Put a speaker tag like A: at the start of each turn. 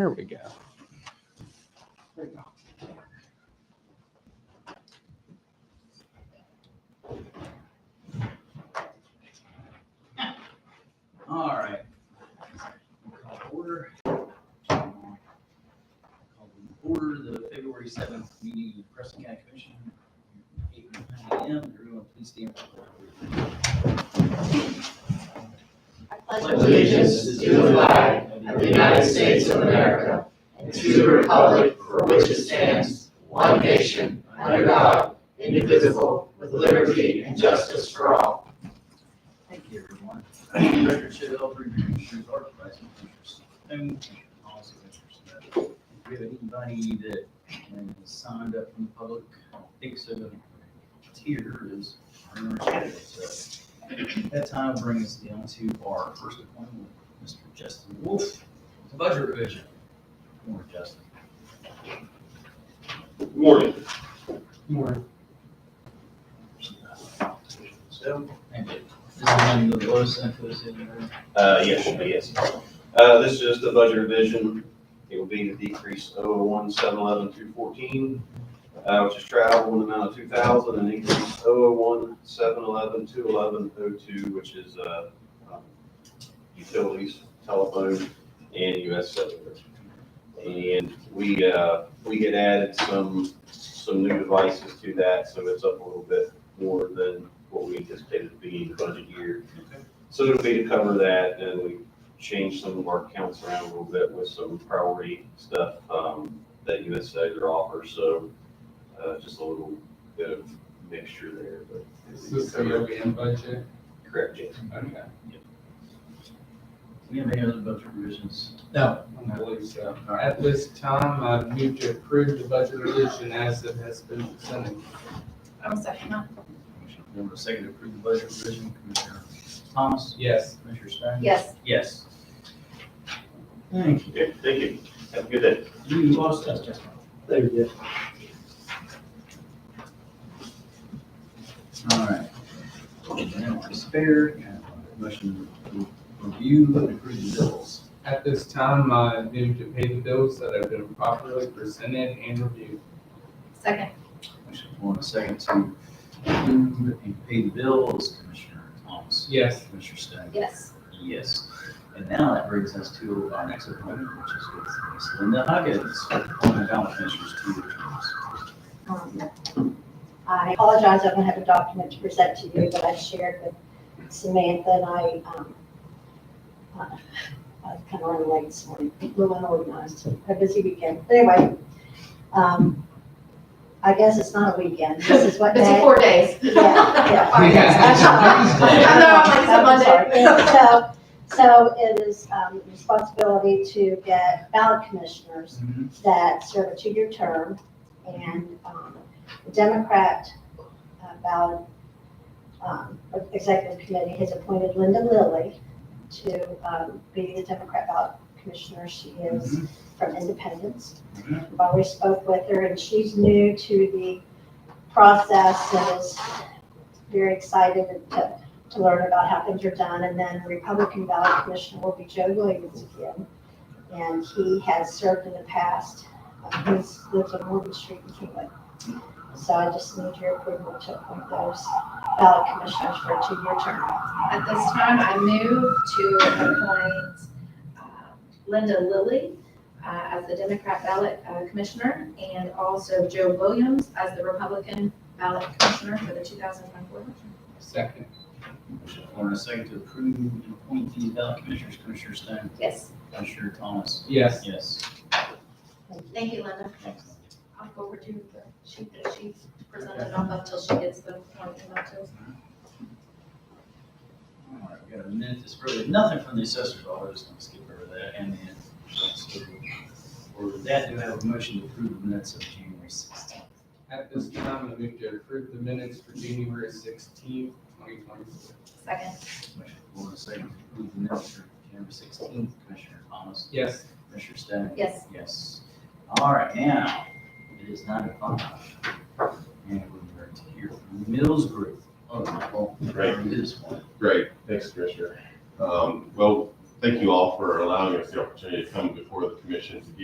A: There we go. There we go.
B: All right. Call to Order. Call to Order the February seventh meeting of Preston County Commission. Eight nine AM, everyone please stand.
C: pledge allegiance to the flag of the United States of America and to the republic for which it stands, one nation, under God, indivisible, with liberty and justice for all.
B: Thank you, everyone. Treasurer should help bring your commissioners or vice commissioners. And all signatures. Do we have anybody that has signed up from the public? I think so. Tier is. so That time brings us down to our first appointment, Mr. Justin Wolf, the budget revision. Good Morning, Justin.
D: Morning.
B: Morning. So, thank you. This is one of the lowest that goes in there.
D: Uh, yes, should be, yes. Uh, this is the budget revision. It will be the decrease of one seven eleven two fourteen, uh, which is travel in the amount of two thousand and increase oh one seven eleven two eleven oh two, which is, uh, um, utilities, telephone, and US cellular. And we, uh, we had added some, some new devices to that, so it's up a little bit more than what we anticipated being budget year. So it'll be to cover that, and we changed some of our accounts around a little bit with some priority stuff, um, that US Cellular offers, so, uh, just a little bit of mixture there, but.
E: Is this the OPM budget?
D: Correct, Jason.
E: Okay.
B: Do we have any other budget revisions?
E: No. At least, uh, at this time, I move to approve the budget revision as it has been presented.
F: I'll second that.
B: Motion to approve, second to approve the budget revision, Commissioner Thomas,
E: Yes.
B: Commissioner Stein?
F: Yes.
B: Yes. Thank you.
D: Okay, thank you. Have a good day.
B: You lost us, Justin.
A: There we go.
B: All right. Now, Spared, motion to review and approve the bills.
E: At this time, I move to pay the bills that have been properly presented and reviewed.
F: Second.
B: Motion for a second to approve and pay the bills, Commissioner Thomas.
E: Yes.
B: Commissioner Stein?
F: Yes.
B: Yes. And now that brings us to our next appointment, which is with Ms. Linda Huggins, appointed ballot measures two year terms.
G: Um, I apologize, I don't have a document to present to you that I shared with Samantha and I, um, uh, I was kind of running late this morning, a little unorganized, a busy weekend. Anyway, um, I guess it's not a weekend, this is what
F: It's in
G: day.
F: four days.
G: Yeah, yeah.
F: All right. I know, I'm like, it's a Monday.
G: And so, so it is, um, responsibility to get ballot commissioners that serve a two-year term, and um, the Democrat uh, ballot um, executive committee has appointed Linda Lilly to um, be the Democrat ballot commissioner. She is from Independence.
B: Mhm.
G: I've always spoke with her, and she's new to the process and is very excited to, to learn about how things are done. And then Republican ballot commissioner will be Joe Williams again. And he has served in the past. Uh, He's lived on Morgan Street in Kingwood. So I just need your approval to appoint those ballot commissioners for a two-year term.
F: At this time, I move to appoint uh, Linda Lilly uh, as the Democrat ballot uh, commissioner and also Joe Williams as the Republican ballot commissioner for the 2024 election.
E: Second.
B: Motion for a second to approve and appoint these ballot commissioners, Commissioner Stein,
F: Yes.
B: Commissioner Thomas.
E: Yes.
B: Yes.
F: Thank you, Linda.
B: Thanks.
F: I'll forward you the sheet that she presented off of till she gets the form emailed to us.
B: All right, we got a minute, there's really nothing from the assessors, I'll just gonna skip over that and then. so, Or with that, do I have a motion to approve the minutes of January sixteenth?
E: At this time, I move to approve the minutes for January sixteenth, twenty twenty-four.
F: Second.
B: Motion for a second to approve the minutes for January sixteenth, Commissioner Thomas.
E: Yes.
B: Commissioner Stein?
F: Yes.
B: Yes. All right, now, it is nine o'clock. And we're going to hear from Mills Group. Oh, Michael.
H: Right.
B: This one.
H: Great, thanks, Commissioner. Um, Well,
D: thank you all for allowing us the opportunity to come before the commission to give